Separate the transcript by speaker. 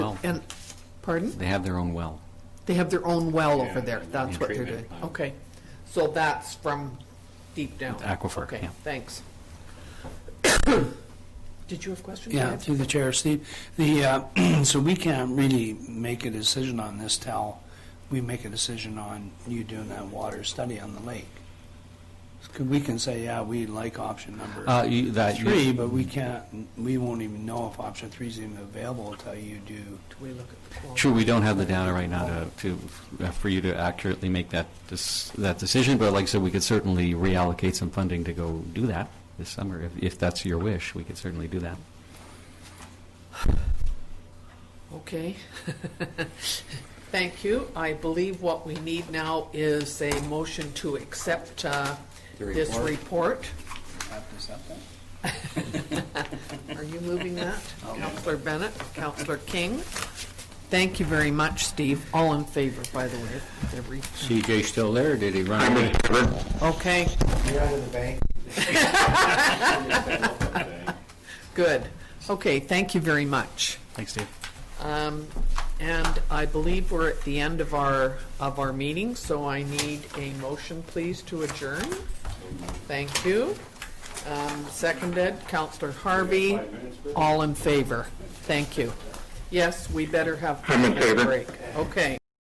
Speaker 1: and, pardon?
Speaker 2: They have their own well.
Speaker 1: They have their own well over
Speaker 3: Yeah,
Speaker 1: there,
Speaker 3: and
Speaker 1: that's what they're doing.
Speaker 3: treatment plant.
Speaker 1: Okay, so that's from deep down?
Speaker 2: Aquifer,
Speaker 1: Okay,
Speaker 2: yeah.
Speaker 1: thanks. Did you have questions?
Speaker 4: Yeah, through the chair, Steve. The, uh, so we can't really make a decision on this till we make a decision on you doing that water study on the lake. 'Cause We can say, yeah, we like option
Speaker 2: Uh,
Speaker 4: number
Speaker 2: you- that you-
Speaker 4: three, but we can't, we won't even know if option three is even available till you do.
Speaker 1: Do we look at the quality?
Speaker 2: Sure, we don't have the data right now to, to, uh, for you to accurately make that, dis- that decision, but like I said, we could certainly reallocate some funding to go do that this summer, if, if that's your wish, we could certainly do that.
Speaker 1: Okay. Thank you. I believe what we need now is a motion to accept uh,
Speaker 3: The
Speaker 1: this
Speaker 3: report.
Speaker 1: report.
Speaker 4: Have to accept that?
Speaker 1: Are you moving that? Counselor Bennett, Counselor King? Thank you very much, Steve. All in favor, by the way. of every-
Speaker 5: CJ still there, or did he run away?
Speaker 1: Okay,
Speaker 4: You're out of the bank.
Speaker 1: good. Okay, thank you very much.
Speaker 2: Thanks, Dave.
Speaker 1: Um, And I believe we're at the end of our, of our meeting, so I need a motion, please, to adjourn. Thank you. Um, Seconded, Counselor Harvey. All in favor. Thank you. Yes, we better have. I'm in favor. Okay.